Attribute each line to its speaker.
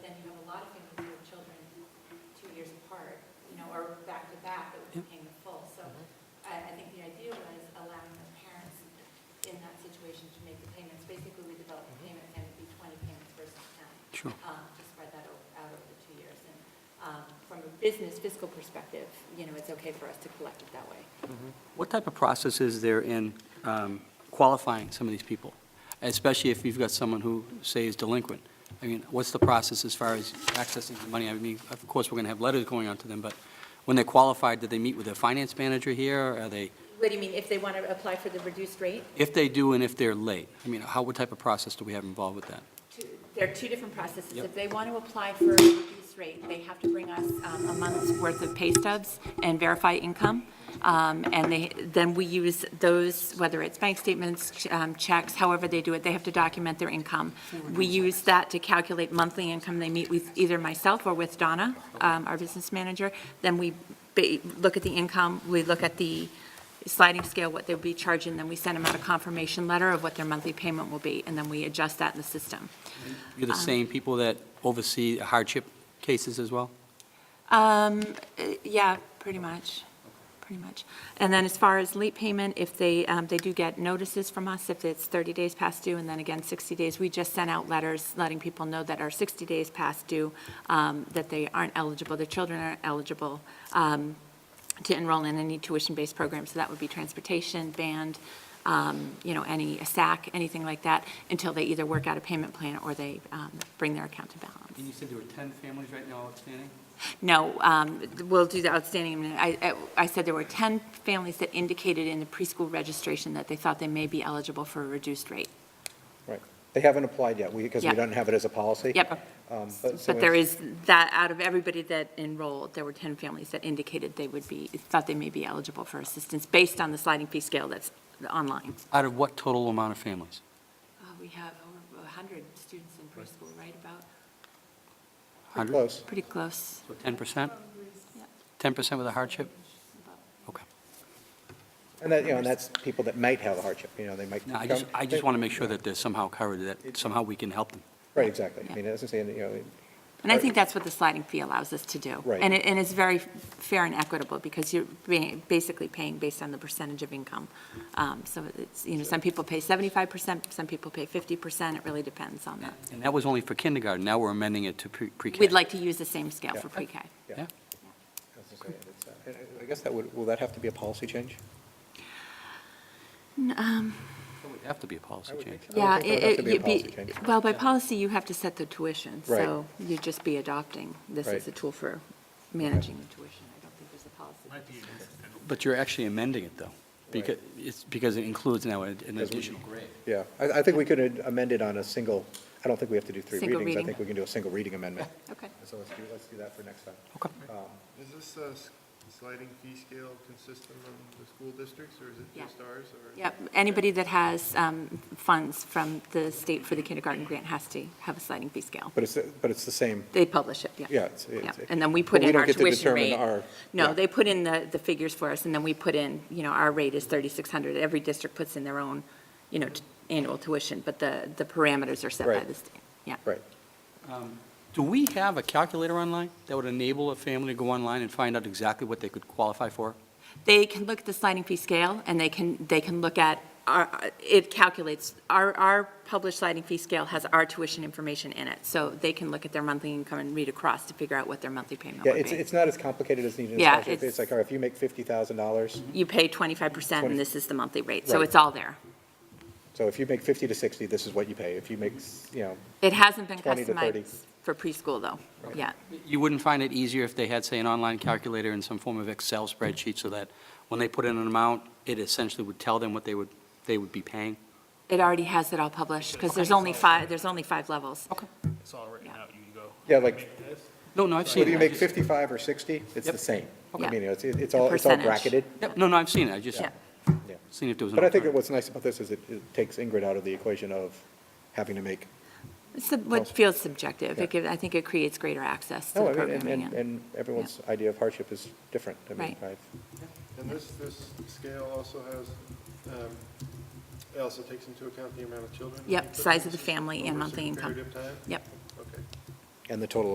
Speaker 1: Sure.
Speaker 2: um, to spread that o- out over the two years. And um, from a business fiscal perspective, you know, it's okay for us to collect it that way.
Speaker 1: What type of process is there in um, qualifying some of these people, especially if you've got someone who, say, is delinquent? I mean, what's the process as far as accessing the money? I mean, of course, we're going to have letters going out to them, but when they're qualified, do they meet with their finance manager here? or Are they,
Speaker 2: What do you mean, if they want to apply for the reduced rate?
Speaker 1: if they do and if they're late? I mean, how, what type of process do we have involved with that?
Speaker 2: Two- There are two different processes.
Speaker 1: Yep.
Speaker 2: If they want to apply for a reduced rate, they have to bring us um, a month's worth of pay stubs and verify income. Um, And they, then we use those, whether it's bank statements, um, checks, however they do it, they have to document their income. We use that to calculate monthly income. They meet with either myself or with Donna, um, our business manager. Then we ba- look at the income, we look at the sliding scale, what they'll be charging, then we send them out a confirmation letter of what their monthly payment will be, and then we adjust that in the system.
Speaker 1: You're the same people that oversee hardship cases as well?
Speaker 2: Um, uh, yeah, pretty much, pretty much. And then as far as late payment, if they, um, they do get notices from us, if it's 30 days past due, and then again 60 days, we just sent out letters letting people know that are 60 days past due, um, that they aren't eligible, their children aren't eligible um, to enroll in any tuition-based program, so that would be transportation, band, um, you know, any, a SAC, anything like that, until they either work out a payment plan or they um, bring their account to balance.
Speaker 1: And you said there were 10 families right now outstanding?
Speaker 2: No, um, we'll do the outstanding. in a minute. I I- I said there were 10 families that indicated in the preschool registration that they thought they may be eligible for a reduced rate.
Speaker 3: Right. They haven't applied yet, because we
Speaker 2: Yeah.
Speaker 3: don't have it as a policy.
Speaker 2: Yep.
Speaker 3: Um, so
Speaker 2: But there
Speaker 3: it's-
Speaker 2: is, that, out of everybody that enrolled, there were 10 families that indicated they would be, thought they may be eligible for assistance based on the sliding fee scale that's online.
Speaker 1: Out of what total amount of families?
Speaker 2: Uh, We have over 100 students in preschool, right about?
Speaker 1: 100?
Speaker 3: Close.
Speaker 2: Pretty close.
Speaker 1: So 10%? 10% with a hardship? Okay.
Speaker 3: And that, you know, and that's people that might have a hardship, you know, they might.
Speaker 1: No, I just,
Speaker 3: come-
Speaker 1: I just want to make sure that they're somehow covered, that somehow we can help them.
Speaker 3: Right, exactly. I mean, as I say, you know,
Speaker 2: And I think that's what the sliding fee allows us to do.
Speaker 3: Right.
Speaker 2: And it, and it's very fair and equitable, because you're being- basically paying based on the percentage of income. Um, So it's, you know, some people pay 75%, some people pay 50%, it really depends on that.
Speaker 1: And that was only for kindergarten, now we're amending it to pre- pre-K.
Speaker 2: We'd like to use the same scale
Speaker 3: Yeah.
Speaker 2: for pre-K.
Speaker 1: Yeah,
Speaker 3: as I say, it's, uh, and I guess that would, will that have to be a policy change?
Speaker 1: it would have to be a policy
Speaker 3: I would
Speaker 1: change.
Speaker 3: think so.
Speaker 2: Yeah,
Speaker 3: think there would have to
Speaker 2: it-
Speaker 3: be a
Speaker 2: it'd be,
Speaker 3: policy change.
Speaker 2: well, by policy, you have to set the tuition, so
Speaker 3: Right.
Speaker 2: you'd just be adopting this as
Speaker 3: Right.
Speaker 2: a tool for managing the tuition. I don't think there's a policy.
Speaker 1: But you're actually amending it, though, because, it's, because it includes now an an
Speaker 3: Because we-
Speaker 1: additional grade.
Speaker 3: Yeah, I, I think we could amend it on a single, I don't think we have to do three
Speaker 2: Single
Speaker 3: readings. I
Speaker 2: reading.
Speaker 3: think we can do a single reading amendment.
Speaker 2: Okay.
Speaker 3: So let's do, let's do that for next time.
Speaker 1: Okay.
Speaker 4: Is this uh, s- sliding fee scale consistent on the school districts, or is it
Speaker 2: Yeah.
Speaker 4: just ours? or-
Speaker 2: Yep, anybody that has um, funds from the state for the kindergarten grant has to have a sliding fee scale.
Speaker 3: But it's, but it's the same,
Speaker 2: They publish it, yeah.
Speaker 3: yeah, it's. it's-
Speaker 2: Yeah, and then we put
Speaker 3: but
Speaker 2: in our
Speaker 3: don't get to
Speaker 2: tuition
Speaker 3: determine
Speaker 2: rate.
Speaker 3: our-
Speaker 2: No,
Speaker 3: yeah.
Speaker 2: they put in the, the figures for us, and then we put in, you know, our rate is 3,600. Every district puts in their own, you know, t- annual tuition, but the, the parameters are set by
Speaker 3: Right.
Speaker 2: the state, yeah.
Speaker 3: Right.
Speaker 1: Um, Do we have a calculator online that would enable a family to go online and find out exactly what they could qualify for?
Speaker 2: They can look at the sliding fee scale, and they can, they can look at, our- it calculates, our, our published sliding fee scale has our tuition information in it, so they can look at their monthly income and read across to figure out what their monthly payment
Speaker 3: Yeah,
Speaker 2: would
Speaker 3: it's,
Speaker 2: be.
Speaker 3: it's not as complicated as needed in
Speaker 2: Yeah,
Speaker 3: scholarship.
Speaker 2: it's-
Speaker 3: It's like, all right, if you make fifty thousand dollars,
Speaker 2: You pay 25%,
Speaker 3: Twenty-
Speaker 2: and this is the monthly rate, so
Speaker 3: Right.
Speaker 2: it's all there.
Speaker 3: so if you make fifty to sixty, this is what you pay. If you make, s- you know,
Speaker 2: It hasn't been
Speaker 3: 20 to 30.
Speaker 2: customized for preschool, though, yet.
Speaker 1: You wouldn't find it easier if they had, say, an online calculator in some form of Excel spreadsheet, so that when they put in an amount, it essentially would tell them what they would, they would be paying?
Speaker 2: It already has it all published, because there's only five, there's only five levels. Okay.
Speaker 5: It's all written out, you go.
Speaker 3: yeah, like,
Speaker 1: No, no, I've seen it.
Speaker 3: whether you
Speaker 1: I
Speaker 3: make
Speaker 1: just-
Speaker 3: fifty-five or sixty, it's
Speaker 1: Yep.
Speaker 3: the same.
Speaker 2: Okay.
Speaker 3: I mean, it's, it's
Speaker 2: The
Speaker 3: all, it's all
Speaker 2: percentage.
Speaker 3: bracketed.
Speaker 1: Yep, no, no, I've seen it, I just
Speaker 2: Yeah.
Speaker 3: Yeah.
Speaker 1: seen if there was an.
Speaker 3: But I think that
Speaker 1: alternative.
Speaker 3: what's nice about this is it, it takes Ingrid out of the equation of having to make,
Speaker 2: It's sub- what feels subjective.
Speaker 3: Yeah.
Speaker 2: It gives, I think it creates greater access to
Speaker 3: no,
Speaker 2: the
Speaker 3: I mean, and,
Speaker 2: programming.
Speaker 3: and,
Speaker 2: and-
Speaker 3: and everyone's idea of hardship is different. I mean,
Speaker 2: Right.
Speaker 3: I've-
Speaker 4: And this, this scale also has, um, it also takes into account the amount of children? that
Speaker 2: Yep,
Speaker 4: you put in
Speaker 2: size of the
Speaker 4: system
Speaker 2: family and
Speaker 4: over a
Speaker 2: monthly
Speaker 4: certain
Speaker 2: income.
Speaker 4: Period of time?
Speaker 2: Yep.
Speaker 4: Okay.
Speaker 3: And the total